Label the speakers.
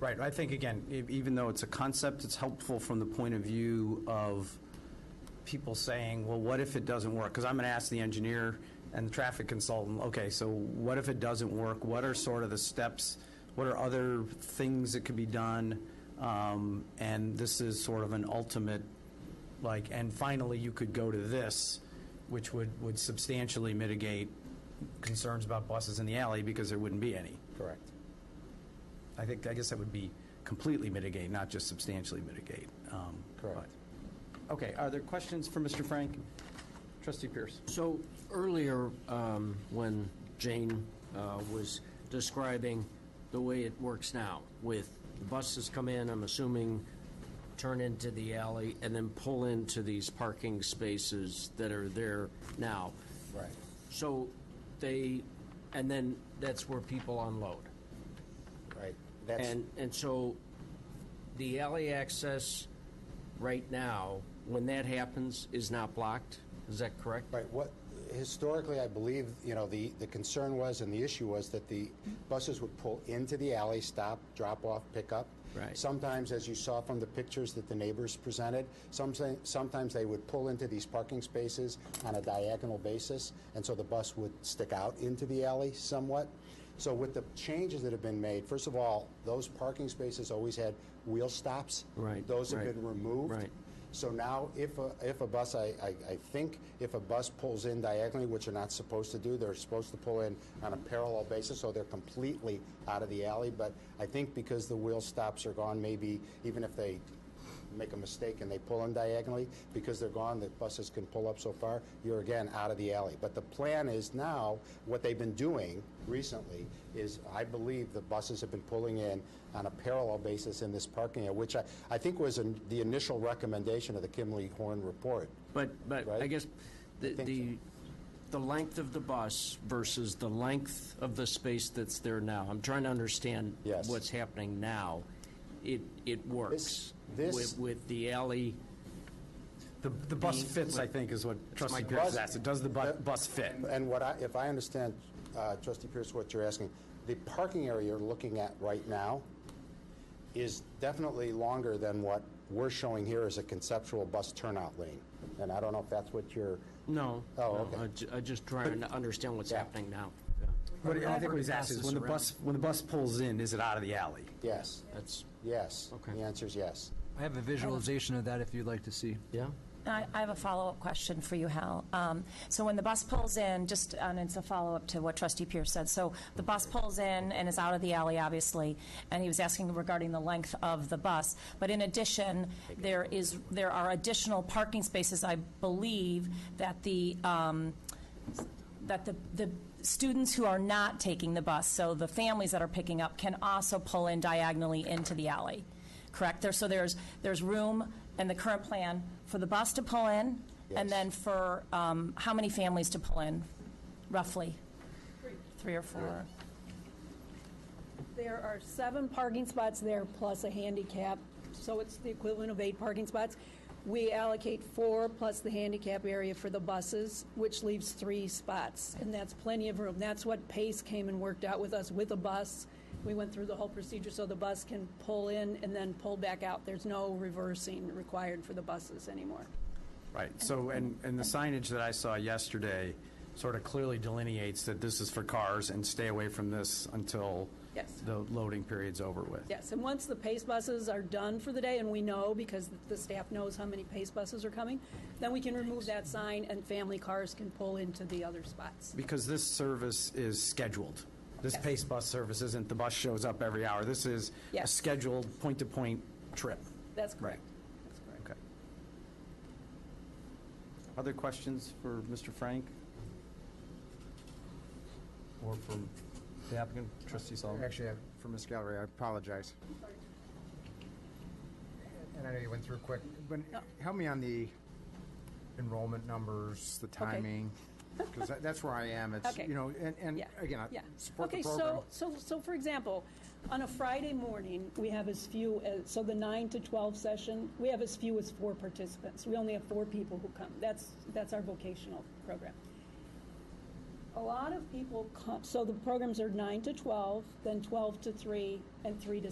Speaker 1: Right, I think, again, e- even though it's a concept, it's helpful from the point of view of people saying, well, what if it doesn't work? Because I'm going to ask the engineer and the traffic consultant, okay, so what if it doesn't work? What are sort of the steps? What are other things that could be done? Um, And this is sort of an ultimate, like, and finally, you could go to this, which would, would substantially mitigate concerns about buses in the alley because there wouldn't be any.
Speaker 2: Correct.
Speaker 1: I think, I guess that would be completely mitigate, not just substantially mitigate. um,
Speaker 2: Correct.
Speaker 1: but- Okay, are there questions for Mr. Frank? Trustee Pierce?
Speaker 3: So earlier, um, when Jane uh, was describing the way it works now, with the buses come in, I'm assuming, turn into the alley, and then pull into these parking spaces that are there now.
Speaker 2: Right.
Speaker 3: So they, and then that's where people unload.
Speaker 2: Right. That's,
Speaker 3: And, and so the alley access right now, when that happens, is not blocked? Is that correct?
Speaker 2: right, what, historically, I believe, you know, the, the concern was and the issue was that the buses would pull into the alley, stop, drop off, pick up.
Speaker 3: Right.
Speaker 2: Sometimes, as you saw from the pictures that the neighbors presented, some, say- sometimes they would pull into these parking spaces on a diagonal basis, and so the bus would stick out into the alley somewhat. So with the changes that have been made, first of all, those parking spaces always had wheel stops.
Speaker 3: Right,
Speaker 2: Those have
Speaker 3: right,
Speaker 2: been removed.
Speaker 3: right.
Speaker 2: So now, if a, if a bus, I, I, I think if a bus pulls in diagonally, which they're not supposed to do, they're supposed to pull in on a parallel basis, so they're completely out of the alley. But I think because the wheel stops are gone, maybe even if they make a mistake and they pull in diagonally, because they're gone, the buses can pull up so far, you're again out of the alley. But the plan is now, what they've been doing recently is, I believe the buses have been pulling in on a parallel basis in this parking area, which I, I think was in the initial recommendation of the Kimley Horn report.
Speaker 3: But, but I
Speaker 2: Right?
Speaker 3: guess the,
Speaker 2: think
Speaker 3: the, the length of the bus versus the length of the space that's there now, I'm trying to understand
Speaker 2: Yes.
Speaker 3: what's happening now. It, it works.
Speaker 2: this-
Speaker 3: With, with the alley,
Speaker 1: The, the bus fits, I think, is what
Speaker 3: my
Speaker 1: trustee Pierce is
Speaker 2: bus-
Speaker 1: asking. Does the bu- bus fit?
Speaker 2: And what I, if I understand, uh, Trustee Pierce, what you're asking, the parking area you're looking at right now is definitely longer than what we're showing here as a conceptual bus turnout lane. And I don't know if that's what you're,
Speaker 3: no.
Speaker 2: Oh,
Speaker 3: no,
Speaker 2: okay.
Speaker 3: I ju- I just trying to understand what's
Speaker 2: Yeah.
Speaker 3: happening now.
Speaker 1: What, I think what he's
Speaker 3: Pass
Speaker 1: asking is
Speaker 3: this
Speaker 1: when the
Speaker 3: around.
Speaker 1: bus, when the bus pulls in, is it out of the alley?
Speaker 2: yes,
Speaker 3: That's,
Speaker 2: yes.
Speaker 3: Okay.
Speaker 2: The answer is yes.
Speaker 4: I have a visualization of that if you'd like to see.
Speaker 3: yeah?
Speaker 5: I I have a follow-up question for you, Hal. Um, So when the bus pulls in, just, and it's a follow-up to what Trustee Pierce said, so the bus pulls in and is out of the alley, obviously, and he was asking regarding the length of the bus, but in addition, there is, there are additional parking spaces, I believe, that the, um, that the, the students who are not taking the bus, so the families that are picking up, can also pull in diagonally into the alley, correct? There, so there's, there's room in the current plan for the bus to pull in,
Speaker 2: Yes.
Speaker 5: and then for, um, how many families to pull in, roughly? Three or four?
Speaker 6: There are seven parking spots there plus a handicap, so it's the equivalent of eight parking spots. We allocate four plus the handicap area for the buses, which leaves three spots, and that's plenty of room. That's what Pace came and worked out with us with a bus. We went through the whole procedure so the bus can pull in and then pull back out. There's no reversing required for the buses anymore.
Speaker 1: Right, so, and, and the signage that I saw yesterday sort of clearly delineates that this is for cars and stay away from this until
Speaker 6: Yes.
Speaker 1: the loading period's over with.
Speaker 6: Yes, and once the PACE buses are done for the day, and we know because the staff knows how many PACE buses are coming, then we can remove that sign and family cars can pull into the other spots.
Speaker 1: Because this service is scheduled. This
Speaker 6: Yes.
Speaker 1: Pace bus service isn't, the bus shows up every hour. This is a
Speaker 6: Yes.
Speaker 1: scheduled, point-to-point trip.
Speaker 6: That's
Speaker 1: Right.
Speaker 6: correct. That's correct.
Speaker 1: Okay. Other questions for Mr. Frank? Or from the applicant, trustee
Speaker 6: Um,
Speaker 1: Sullivan?
Speaker 7: Actually, I- for Ms. Gallery, I apologize. And I know you went through quick, but help me on the enrollment numbers, the timing, because that's where I am. It's,
Speaker 6: Okay.
Speaker 7: you know, and, and
Speaker 6: Yeah,
Speaker 7: again, I
Speaker 6: yeah.
Speaker 7: support the
Speaker 6: Okay,
Speaker 7: program.
Speaker 6: so, so, so for example, on a Friday morning, we have as few, as so the nine to twelve session, we have as few as four participants. We only have four people who come. That's, that's our vocational program. A lot of people come, so the programs are nine to twelve, then twelve to three, and three to